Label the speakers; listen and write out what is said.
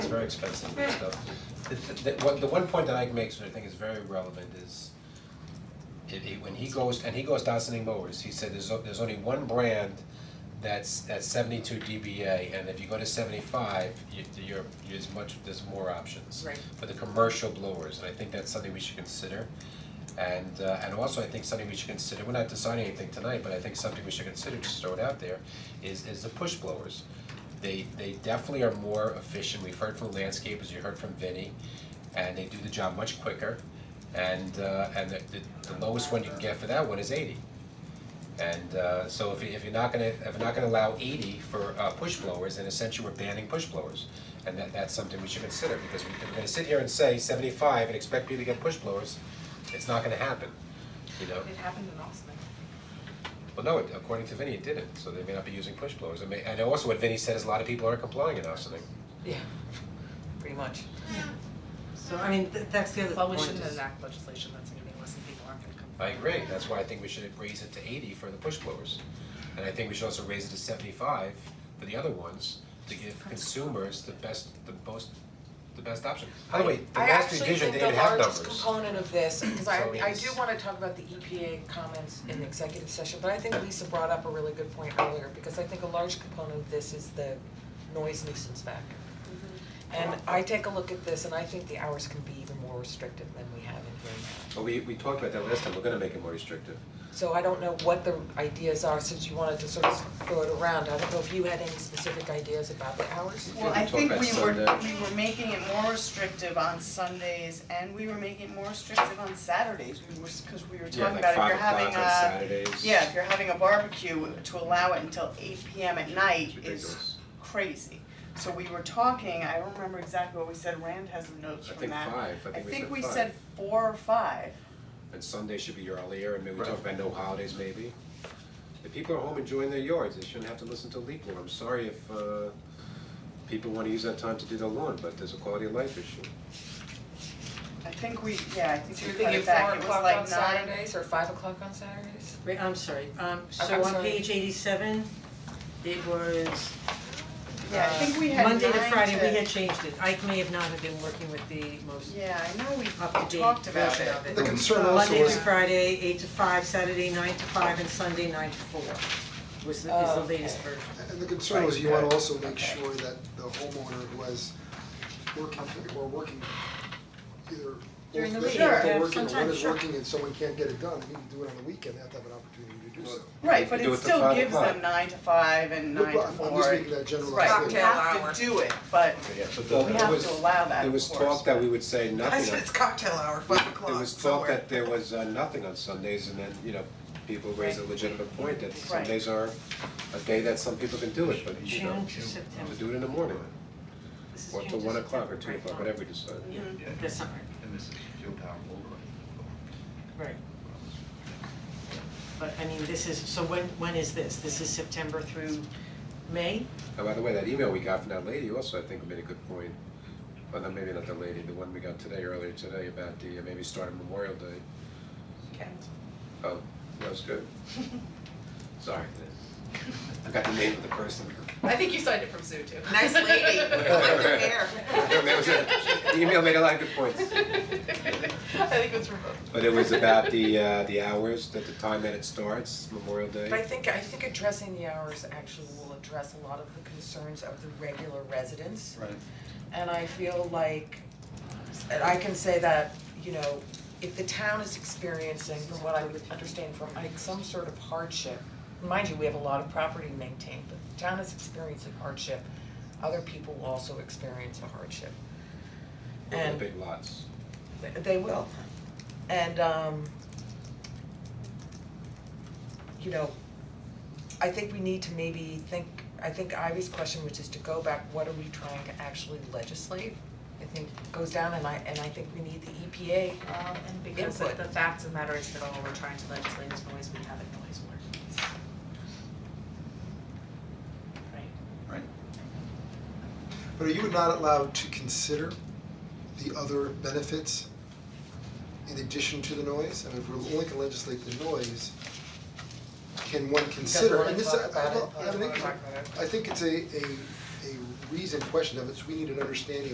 Speaker 1: very expensive and stuff. The, th- the, one, the one point that Ike makes, which I think is very relevant, is it, he, when he goes, and he goes down sending mowers, he said there's, o- there's only one brand that's at seventy-two DBA, and if you go to seventy-five, you, you're, there's much, there's more options.
Speaker 2: Right.
Speaker 1: For the commercial blowers, and I think that's something we should consider. And uh and also I think something we should consider, we're not deciding anything tonight, but I think something we should consider, just throw it out there, is is the push blowers. They they definitely are more efficient, we've heard from landscapers, you heard from Vinny, and they do the job much quicker. And uh and the the the lowest one you can get for that one is eighty. And uh so if you if you're not gonna, if you're not gonna allow eighty for uh push blowers, then essentially we're banning push blowers. And that that's something we should consider, because we if we're gonna sit here and say seventy-five and expect people to get push blowers, it's not gonna happen, you know?
Speaker 2: It happened in Austin.
Speaker 1: Well, no, it- according to Vinny, it didn't, so they may not be using push blowers, I mean, and also what Vinny said is a lot of people aren't complying in Austining.
Speaker 3: Yeah, pretty much. So I mean, th- that's the other
Speaker 2: Well, we
Speaker 3: point
Speaker 2: shouldn't
Speaker 3: is-
Speaker 2: enact legislation that's gonna be less than people aren't gonna come.
Speaker 1: I agree, that's why I think we should raise it to eighty for the push blowers. And I think we should also raise it to seventy-five for the other ones, to give consumers the best, the most, the best option. By the way, the last revision, they didn't have
Speaker 4: I actually
Speaker 1: numbers.
Speaker 4: think the largest component of this, because I
Speaker 1: So
Speaker 4: I
Speaker 1: it's-
Speaker 4: do wanna talk about the EPA comments in the executive session, but I think Lisa brought up a really good point earlier, because I think a large component of this is the noise nuisance factor.
Speaker 2: Mm-hmm.
Speaker 4: And I take a look at this and I think the hours can be even more restrictive than we have in here now.
Speaker 1: Well, Oh, we we talked about that last time, we're gonna make it more restrictive.
Speaker 4: So I don't know what the ideas are, since you wanted to sort of throw it around, I don't know if you had any specific ideas about the hours?
Speaker 5: Well, I
Speaker 1: Talk
Speaker 5: think
Speaker 1: about
Speaker 5: we were,
Speaker 1: Sunday.
Speaker 5: we were making it more restrictive on Sundays and we were making it more restrictive on Saturdays. We were, cause we were talking about if you're having a,
Speaker 1: Saturdays.
Speaker 5: yeah, if you're having a barbecue, to allow it until eight P M at night
Speaker 1: ridiculous.
Speaker 5: is crazy. So we were talking, I don't remember exactly what we said, Rand has the notes
Speaker 1: I
Speaker 5: from
Speaker 1: think
Speaker 5: that.
Speaker 1: five, I think we said
Speaker 5: we
Speaker 1: five.
Speaker 5: said four or five.
Speaker 1: And Sunday should be earlier, and maybe we talk about no holidays maybe. If people are home enjoying their yards, they shouldn't have to listen to leak law. I'm sorry if uh people wanna use that time to do their lawn, but there's a quality of life issue.
Speaker 5: I think we, yeah,
Speaker 4: So
Speaker 5: I think
Speaker 4: you're
Speaker 5: we cut
Speaker 4: thinking
Speaker 5: it
Speaker 4: four
Speaker 5: back, it was
Speaker 4: o'clock on
Speaker 5: like nine,
Speaker 4: Saturdays or five o'clock on Saturdays?
Speaker 3: Wait, I'm sorry, um,
Speaker 4: I'm- I'm
Speaker 3: so on
Speaker 4: sorry.
Speaker 3: page eighty-seven, it was
Speaker 5: yeah, I think we
Speaker 3: uh,
Speaker 5: had nine
Speaker 3: Monday to Friday, we had changed it, Ike may have not have been working with the most
Speaker 5: Yeah, I know we
Speaker 3: up-to-date
Speaker 5: talked about
Speaker 3: version
Speaker 5: it.
Speaker 3: of it.
Speaker 6: The concern also
Speaker 3: Monday
Speaker 6: was,
Speaker 3: through Friday, eight to five, Saturday nine to five, and Sunday nine to four was the, is the
Speaker 4: Oh,
Speaker 3: latest
Speaker 4: okay.
Speaker 3: version.
Speaker 6: and the concern was you wanna also make sure that the homeowner who has working or working either
Speaker 3: During the
Speaker 6: both
Speaker 3: week,
Speaker 6: days,
Speaker 3: yeah,
Speaker 6: or working, or one
Speaker 3: sometimes,
Speaker 6: is
Speaker 3: sure.
Speaker 6: working and someone can't get it done, you can do it on the weekend, they have to have an opportunity to do so.
Speaker 1: You
Speaker 5: Right, but
Speaker 1: do it
Speaker 5: it
Speaker 1: to
Speaker 5: still
Speaker 1: five
Speaker 5: gives them
Speaker 1: o'clock.
Speaker 5: nine to five and
Speaker 6: No,
Speaker 5: nine
Speaker 6: but
Speaker 5: to
Speaker 6: I'm-
Speaker 5: four.
Speaker 6: I'm just making that general
Speaker 5: Right, we
Speaker 6: statement.
Speaker 5: have to do it, but
Speaker 1: Yeah, but
Speaker 5: we have to allow that,
Speaker 1: There
Speaker 5: of
Speaker 1: was
Speaker 5: course.
Speaker 1: talk that we would say nothing on
Speaker 7: cocktail hour, five o'clock
Speaker 1: There was talk that there was uh nothing on Sundays and then, you know, people raise a
Speaker 5: Right.
Speaker 1: legitimate point that
Speaker 5: Right.
Speaker 1: Sundays are a day that some people can do it, but you know,
Speaker 3: June to September.
Speaker 1: to do it in the morning,
Speaker 3: This is
Speaker 1: or till
Speaker 3: June to
Speaker 1: one o'clock or
Speaker 3: September,
Speaker 1: two
Speaker 3: right?
Speaker 1: o'clock, whatever we decide.
Speaker 3: Yeah,
Speaker 5: Mm-hmm.
Speaker 3: that's not right.
Speaker 7: And this is Joe Power
Speaker 3: Right. But I mean, this is, so when, when is this? This is September through May?
Speaker 1: And Oh, by the way, that email we got from that lady also, I think made a good point, well, not maybe not the lady, the one we got today, earlier today, about the, uh, maybe starting Memorial Day. Oh, that was good. Sorry, I got the name of the person.
Speaker 2: I think you signed it from Sue too.
Speaker 7: Nice lady,
Speaker 1: That was it. The email made a lot of good points.
Speaker 2: I think it was from both.
Speaker 1: But it was about the uh the hours, that the time that it starts, Memorial
Speaker 4: But I
Speaker 1: Day.
Speaker 4: think, I think addressing the hours actually will address a lot of the concerns of the regular residents.
Speaker 7: Right.
Speaker 4: And I feel like, and I can say that, you know, if the town is experiencing, from what I would understand from Ike, some sort of hardship, mind you, we have a lot of property to maintain, but the town is experiencing hardship, other people will also experience a hardship.
Speaker 1: Over the
Speaker 4: And-
Speaker 1: big lots.
Speaker 4: Th- They will. And um you know, I think we need to maybe think, I think Ivy's question, which is to go back, what are we trying to actually legislate? I think goes down and I and I think we need the E EPA.
Speaker 2: Um, and because
Speaker 4: Input.
Speaker 2: the fact of the matter is that all we're trying to legislate is noise, we have a noise ordinance. Right.
Speaker 7: Right.
Speaker 6: But are you not allowed to consider the other benefits in addition to the noise? I mean, if we're only gonna legislate the noise, can one consider, and this, I, I don't- I think, I think it's a, a, a reasoned question, of it's, we need an understanding